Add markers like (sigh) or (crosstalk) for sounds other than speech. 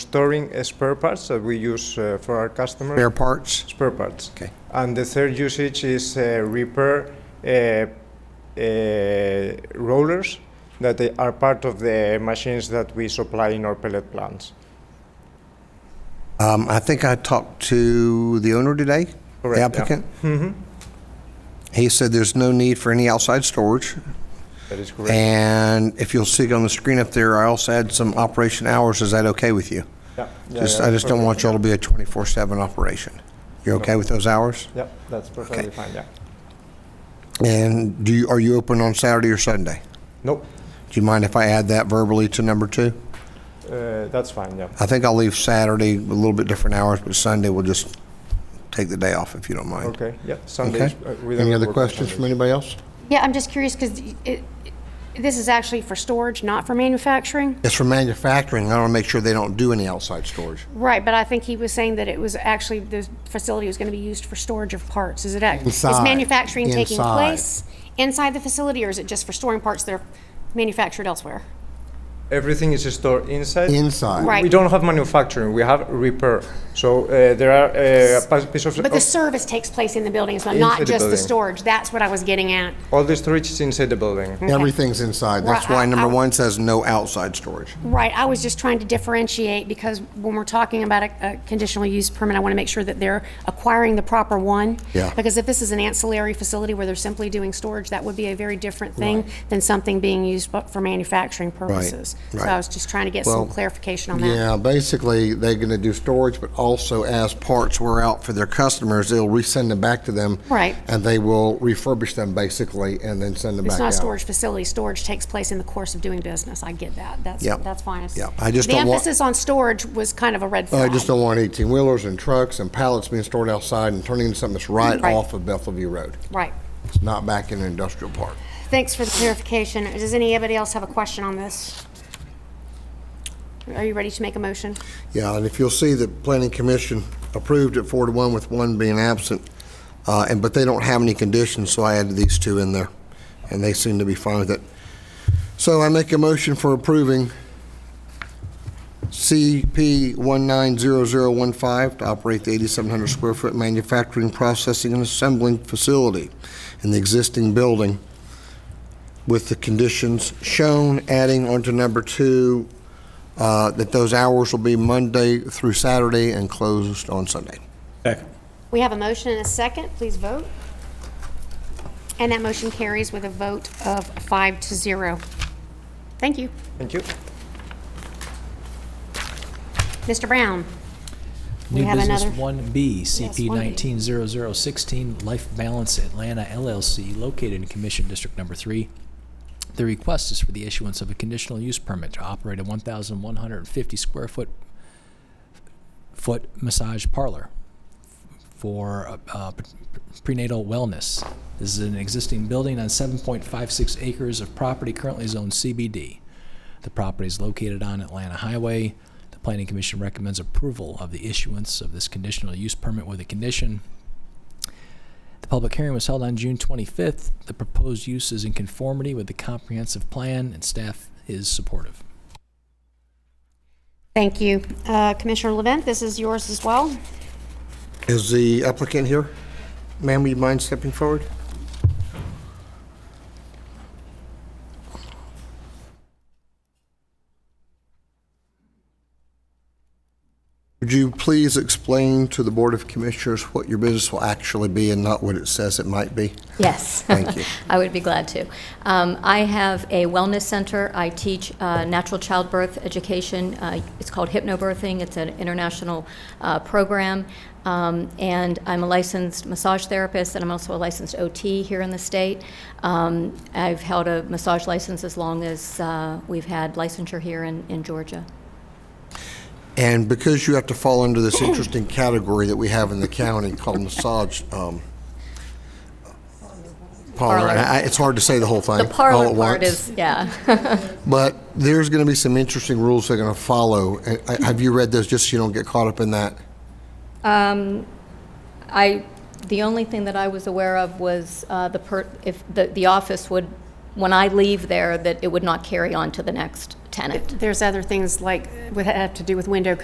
storing uh, spare parts that we use uh, for our customers. Spare parts? Spare parts. Okay. And the third usage is uh, repair uh, uh, rollers that they are part of the machines that we supply in our pellet plants. Um, I think I talked to the owner today, Correct, the yeah. Mm-hmm. applicant. He said there's no need for any outside storage. That is correct. And if you'll see on the screen up there, I also had some operation hours. Is that okay with you? yeah, yeah, Just, yeah, I just don't perfect. want y'all to be a 24/7 operation. You're okay with those hours? Yeah, that's perfectly fine. Yeah. And do you, are you open on Saturday or Sunday? Nope. Do you mind if I add that verbally to number two? Uh, that's fine. Yeah. I think I'll leave Saturday a little bit different hours, but Sunday we'll just take the day off if you don't mind. Okay. Yeah. Sundays. Okay? uh, we don't Any other work on questions from Sundays. anybody else? Yeah, I'm just curious because this is actually for storage, not for manufacturing. It's for manufacturing. I want to make sure they don't do any outside storage. Right, but I think he was saying that it was actually, the facility was going to be used for storage of parts. Is it, act- is Inside, manufacturing taking inside. place inside the facility or is it just for storing parts that are manufactured elsewhere? Everything is stored inside. Inside. Right. We don't have manufacturing. We have repair. So uh, there are uh, a pa- piece of, But the of- service takes place in the building, so Inside the not just the building. storage. That's what I was getting at. all the storage is inside the building. Everything's inside. That's That's why I- number I- one says no outside storage. Right, I was just trying to differentiate because when we're talking about a, a conditional use permit, I want to make sure that they're acquiring the proper one. Yeah. Because if this is an ancillary facility where they're simply doing storage, that would be a very different thing than something being used bu- for manufacturing purposes. So right. I was just trying to get some clarification on that. yeah, basically they're going to do storage, but Also, as parts wear out for their customers, they'll resend them back to them. Right. And they will refurbish them basically and then send them back It's out. not a storage facility, storage takes place in the course of doing business, I get that, that's, Yeah. that's fine. It's- Yeah, I just don't The want- emphasis on storage was kind of a red I flag. just don't want 18-wheelers and trucks and pallets being stored outside and turning into something that's right Right. off of Bethelview Road. Right. It's not back in an industrial park. Thanks for the clarification. Does anybody else have a question on this? Are you ready to make a motion? Yeah, and if you'll see, the planning commission approved it four to one with one being absent, uh, and, but they don't have any conditions, so I added these two in there, and they seem to be fine with it. So I make a motion for approving CP one nine zero zero one five to operate the eighty-seven hundred square foot manufacturing, processing, and assembling facility in the existing building with the conditions shown, adding onto number two, uh, that those hours will be Monday through Saturday and closed on Sunday. We have a motion and a second. Please vote. And that motion carries with a vote of five to zero. Thank you. Thank you. Mr. Brown? We New have business another- one B, CP 1B. nineteen zero zero sixteen, Life Balance Atlanta LLC, located in Commission District Number Three. The request is for the issuance of a conditional use permit to operate a one thousand one hundred and fifty square foot foot massage parlor for uh, uh, prenatal wellness. This is an existing building on 7.56 acres of property currently zoned CBD. The property is located on Atlanta Highway. The Planning Commission recommends approval of the issuance of this conditional use permit with a condition the public hearing was held on June 25th. The proposed use is in conformity with the comprehensive plan, and staff is supportive. Thank you. Uh, Commissioner Levent, this is yours as well. Is the applicant here? Ma'am, would you mind stepping forward? Would you please explain to the Board of Commissioners what your business will actually be and not what it says it might be? Yes. Thank you. (laughs) I would be glad to. Um, I have a wellness center. I teach uh, natural childbirth education. Uh, It's called hypnobirthing. It's an international uh, program. Um, And I'm a licensed massage therapist, and I'm also a licensed OT here in the state. Um, I've held a massage license as long as uh, we've had licensure here in in Georgia. And because you have to fall under this interesting category that we have in the county called massage, um, parlor, and I- it's hard to say the whole thing. The all parlor at part once. is, yeah. But there's going to be some interesting rules they're going to follow. And I- Have you read those, just so you don't get caught up in that? Um, I, the only thing that I was aware of was uh, the per, if, the, the office would, when I leave there, that it would not carry on to the next tenant. There's other things like, would have to do with window